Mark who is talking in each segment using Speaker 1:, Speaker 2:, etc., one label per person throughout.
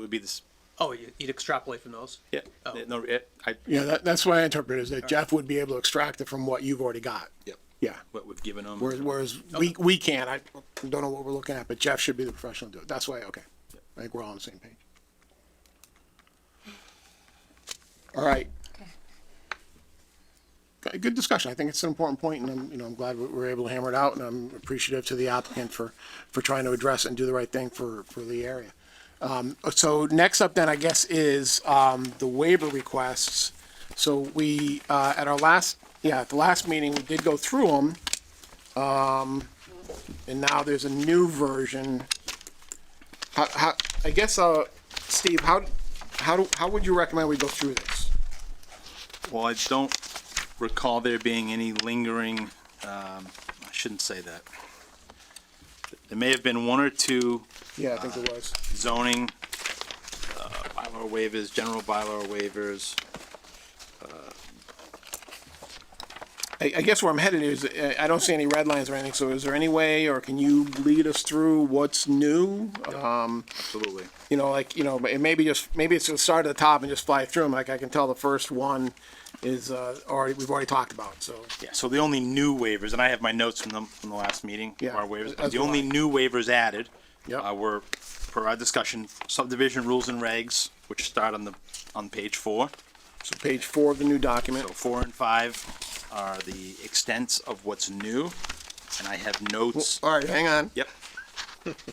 Speaker 1: would be this,
Speaker 2: Oh, you- you'd extrapolate from those?
Speaker 1: yeah,
Speaker 2: Oh.
Speaker 1: no, it- I,
Speaker 3: Yeah, that, that's what I interpret is that Jeff would be able to extract it from what you've already got.
Speaker 1: Yep.
Speaker 3: Yeah.
Speaker 1: what we've given them.
Speaker 3: Whereas, whereas we, we can't, I don't know what we're looking at, but Jeff should be the professional to do it. That's why, okay. I think we're all on the same page. All right. Okay, Good discussion. I think it's an important point and I'm, you know, I'm glad we were able to hammer it out and I'm appreciative to the applicant for, for trying to address and do the right thing for, for the area. Um, so next up then, I guess, is, um, the waiver requests. So we, uh, at our last, yeah, at the last meeting, we did go through them. And now there's a new version. How, how, I guess, uh, Steve, how, how do, how would you recommend we go through this?
Speaker 1: Well, I don't recall there being any lingering, um, I shouldn't say that. There may have been one or two
Speaker 3: Yeah, I think it was.
Speaker 1: zoning, uh, bylaw waivers, general bylaw waivers.
Speaker 3: I, I guess where I'm headed is, uh, I don't see any red lines or anything, so is there any way, or can you lead us through what's new? Um,
Speaker 1: Absolutely.
Speaker 3: you know, like, you know, but it maybe just, maybe it's just start at the top and just fly through them, like I can tell the first one is, uh, already, we've already talked about, so.
Speaker 1: Yeah, so the only new waivers, and I have my notes from the, from the last meeting,
Speaker 3: Yeah,
Speaker 1: our waivers,
Speaker 3: as
Speaker 1: the
Speaker 3: do
Speaker 1: only
Speaker 3: I.
Speaker 1: new waivers added
Speaker 3: Yep.
Speaker 1: uh, were, per our discussion, subdivision rules and regs, which start on the, on page four.
Speaker 3: So page four of the new
Speaker 1: So
Speaker 3: document,
Speaker 1: four and five are the extents of what's new, and I have notes.
Speaker 3: all right, hang on.
Speaker 1: Yep,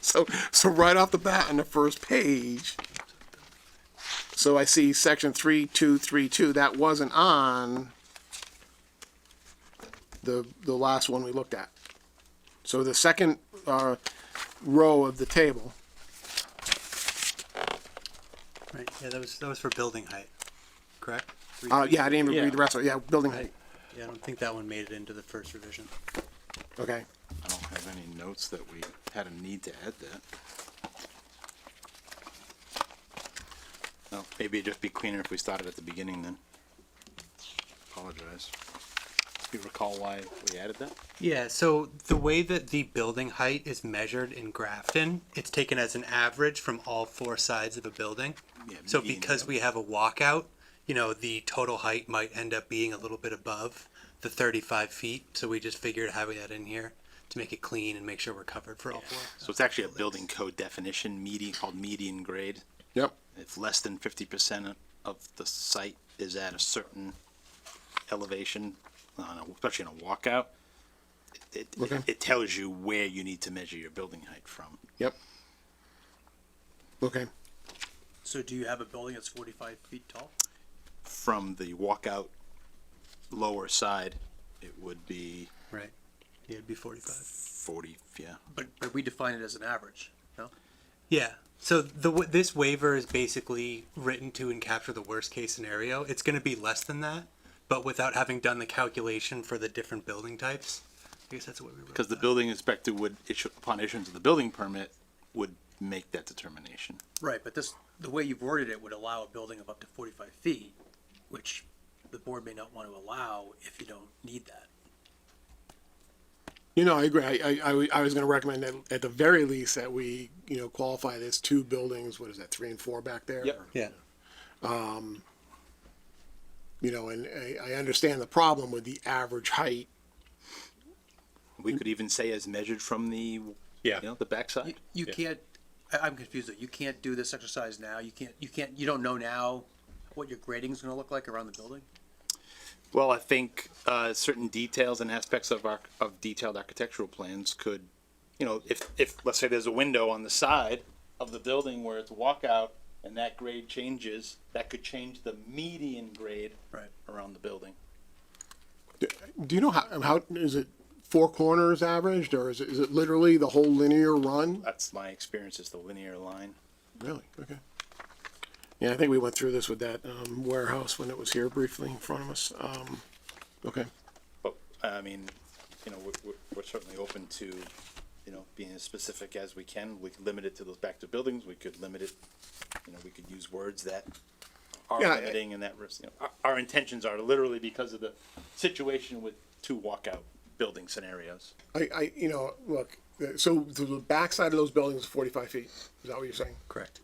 Speaker 3: So, so right off the bat on the first page, so I see section three, two, three, two, that wasn't on the, the last one we looked at. So the second, uh, row of the table,
Speaker 4: Right, yeah, that was, that was for building height, correct? Three
Speaker 3: uh,
Speaker 4: feet?
Speaker 3: yeah, I didn't even read the rest of it, yeah, building height,
Speaker 4: Yeah, I don't think that one made it into the first revision.
Speaker 3: okay.
Speaker 1: I don't have any notes that we had a need to add that. No, maybe it'd just be cleaner if we started at the beginning then. Apologize. You recall why we added that?
Speaker 4: Yeah, so the way that the building height is measured in Grafton, it's taken as an average from all four sides of a building.
Speaker 1: Yeah,
Speaker 4: So
Speaker 1: median,
Speaker 4: because
Speaker 1: yeah.
Speaker 4: we have a walkout, you know, the total height might end up being a little bit above the thirty-five feet, so we just figured having that in here to make it clean and make sure we're covered for all four.
Speaker 1: So it's actually a building code definition, median, called median grade.
Speaker 3: Yep.
Speaker 1: If less than fifty percent of the site is at a certain elevation, on a- especially in a walkout, it,
Speaker 3: Okay.
Speaker 1: it tells you where you need to measure your building height from.
Speaker 3: Yep. Okay,
Speaker 2: So do you have a building that's forty-five feet tall?
Speaker 1: From the walkout lower side, it would be
Speaker 4: Right, yeah, it'd be forty-five.
Speaker 1: forty, yeah.
Speaker 2: But, but we define it as an average, no?
Speaker 4: Yeah. So the w- this waiver is basically written to and capture the worst case scenario. It's going to be less than that, but without having done the calculation for the different building types. I guess that's what we wrote.
Speaker 1: Because the
Speaker 4: that.
Speaker 1: building inspector would issue, upon issuance of the building permit, would make that determination.
Speaker 2: Right, but this, the way you've worded it would allow a building of up to forty-five feet, which the board may not want to allow if you don't need that.
Speaker 3: you know, I agree, I, I, I wa- I was gonna recommend that at the very least that we, you know, qualify this two buildings, what is that, three and four back there?
Speaker 1: Yep.
Speaker 4: yeah.
Speaker 3: you know, and I, I understand the problem with the average height.
Speaker 1: We could even say as measured from the, you
Speaker 5: Yeah.
Speaker 1: know, the backside.
Speaker 2: You can't, I, I'm confused though, you can't do this exercise now, you can't, you can't, you don't know now what your grading's gonna look like around the building?
Speaker 1: Well, I think uh, certain details and aspects of our of detailed architectural plans could, you know, if if let's say there's a window on the side of the building where it's a walkout and that grade changes, that could change the median grade
Speaker 2: Right.
Speaker 1: around the building.
Speaker 3: Do you know how, um, how, is it four corners averaged or is it, is it literally the whole linear run?
Speaker 1: That's my experience. Is the linear line.
Speaker 3: Really? Okay. Yeah, I think we went through this with that, um, warehouse when it was here briefly in front of us. Um, okay.
Speaker 1: But I mean, you know, we're, we're, we're certainly open to, you know, being as specific as we can. We could limit it to those back to buildings. We could limit it, you know, we could use words that are
Speaker 3: Yeah, I-
Speaker 1: limiting and that, res- you know, our, our intentions are literally because of the situation with two walkout building scenarios.
Speaker 3: I, I, you know, look, uh, so the the backside of those buildings is forty-five feet. Is that what you're saying?
Speaker 4: Correct.